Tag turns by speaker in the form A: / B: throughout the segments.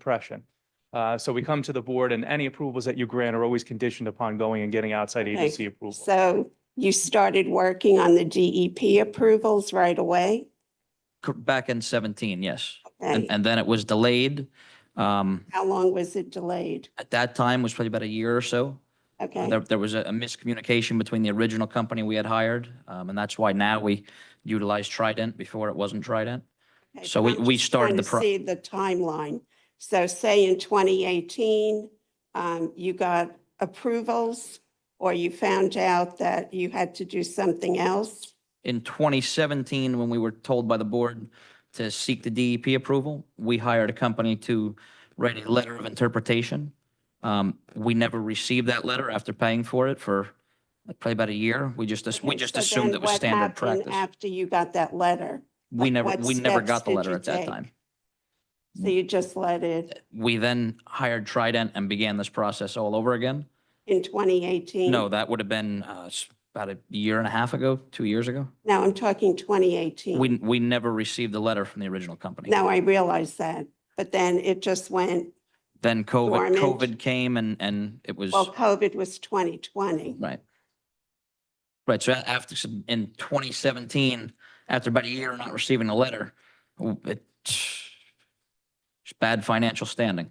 A: depression. Uh, so we come to the board and any approvals that you grant are always conditioned upon going and getting outside
B: Okay,
A: agency approval.
B: So you started working on the DEP approvals right away?
C: Cor- Back in 17, yes. And,
B: Okay.
C: and then it was delayed. Um,
B: How long was it delayed?
C: At that time was probably about a year or so.
B: Okay,
C: There, there was a a miscommunication between the original company we had hired. um, And that's why now we utilize Trident before it wasn't Trident.
B: okay,
C: So we,
B: I'm
C: we
B: just
C: started
B: trying
C: the,
B: to
C: pro-
B: See the timeline. So say in 2018, um, you got approvals or you found out that you had to do something else?
C: in 2017, when we were told by the board to seek the DEP approval, we hired a company to write a letter of interpretation. Um, We never received that letter after paying for it for probably about a year. We just, as- we
B: Okay,
C: just
B: so
C: assumed
B: then
C: it was
B: what
C: standard
B: happened
C: practice.
B: After you got that letter,
C: We
B: Like,
C: never,
B: what
C: we never
B: steps
C: got the
B: did
C: letter
B: you
C: at that
B: take?
C: time.
B: so you just let it
C: We then hired Trident and began this process all over again.
B: in 2018?
C: No, that would have been uh, s- about a year and a half ago, two years ago.
B: No, I'm talking 2018.
C: We, we never received the letter from the original company.
B: No, I realize that, but then it just went,
C: Then COVID,
B: Dormant.
C: COVID came and, and it was,
B: well, COVID was 2020.
C: right. Right, so a- after, some- in 2017, after about a year of not receiving a letter, w- it- it's bad financial standing.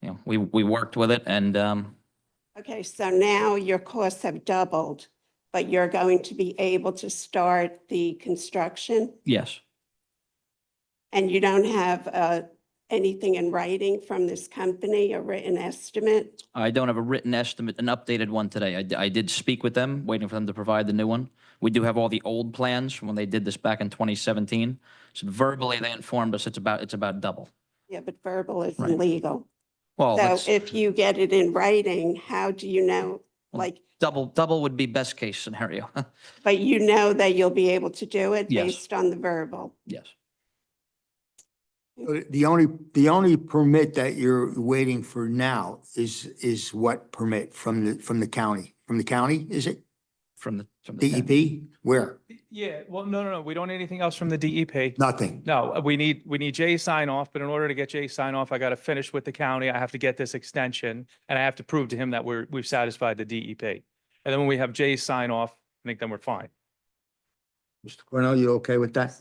C: You know, we, we worked with it and, um,
B: Okay, so now your costs have doubled, but you're going to be able to start the construction?
C: yes.
B: And you don't have uh, anything in writing from this company, a written estimate?
C: I don't have a written estimate, an updated one today. I, d- I did speak with them, waiting for them to provide the new one. We do have all the old plans from when they did this back in 2017. So verbally, they informed us it's about, it's about double.
B: Yeah, but verbal
C: Right.
B: isn't legal.
C: Well,
B: So
C: that's,
B: if you get it in writing, how do you know?
C: Well-
B: Like,
C: double, double would be best case scenario.
B: but you know that you'll be able to do it
C: Yes.
B: based on the verbal?
C: Yes.
D: Uh, The only, the only permit that you're waiting for now is, is what permit from the, from the county? From the county, is it?
C: From the, from
D: E
C: the. town.
D: DEP? Where?
A: Yeah, well, no, no, no, we don't need anything else from the DEP.
D: Nothing.
A: No, we need, we need Jay sign off, but in order to get Jay sign off, I got to finish with the county. I have to get this extension and I have to prove to him that we're, we've satisfied the DEP. And then when we have Jay sign off, I think then we're fine.
D: Mr. Cornell, you okay with that?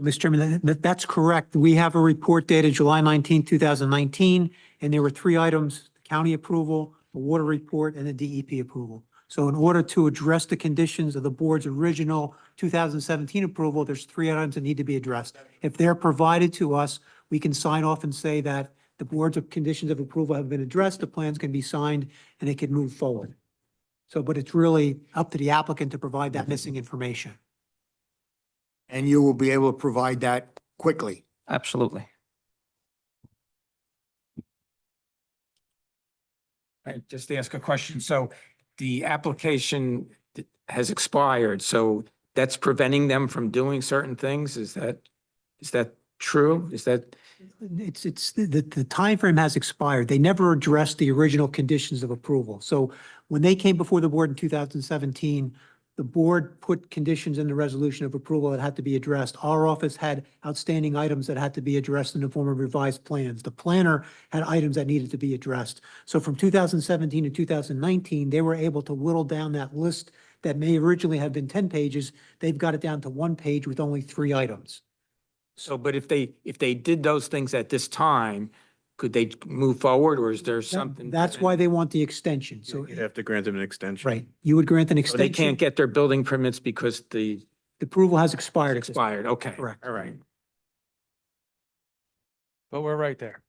E: Mr. Chairman, that- that, that's correct. We have a report dated July 19, 2019, and there were three items, county approval, the water report, and the DEP approval. So in order to address the conditions of the board's original 2017 approval, there's three items that need to be addressed. If they're provided to us, we can sign off and say that the board's of- conditions of approval have been addressed, the plans can be signed, and it can move forward. So, but it's really up to the applicant to provide that missing information.
D: And you will be able to provide that quickly.
C: Absolutely.
F: I just to ask a question. So the application th- has expired, so that's preventing them from doing certain things? Is that, is that true? Is that,
E: It's, it's, the, the the timeframe has expired. They never addressed the original conditions of approval. So when they came before the board in 2017, the board put conditions in the resolution of approval that had to be addressed. Our office had outstanding items that had to be addressed in the form of revised plans. The planner had items that needed to be addressed. So from 2017 to 2019, they were able to whittle down that list that may originally have been 10 pages. They've got it down to one page with only three items.
F: so, but if they, if they did those things at this time, could they move forward or is there
E: That-
F: something?
E: That's why they want the extension, so.
G: You'd have to grant them an extension.
E: Right, you would grant an
F: So They can't
E: extension,
F: get their building permits because the
E: the approval has expired. at this-
F: expired. Okay.
E: Correct.
F: All right.
A: But we're right there.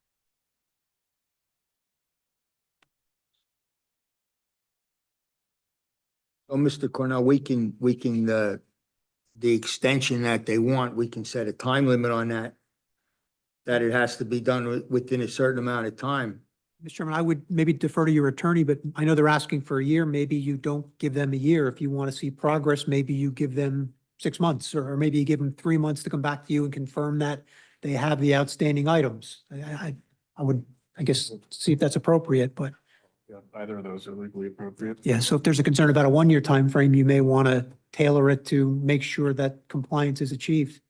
D: So, Mr. Cornell, we can, we can, uh, the extension that they want, we can set a time limit on that. That it has to be done wi- within a certain amount of time.
E: Mr. Chairman, I would maybe defer to your attorney, but I know they're asking for a year, maybe you don't give them a year. If you want to see progress, maybe you give them six months, or or maybe you give them three months to come back to you and confirm that they have the outstanding items. I, I, I would, I guess, see if that's appropriate, but
G: Yeah, Either of those are legally appropriate.
E: yeah, so if there's a concern about a one-year time frame, you may want to tailor it to make sure that compliance is achieved.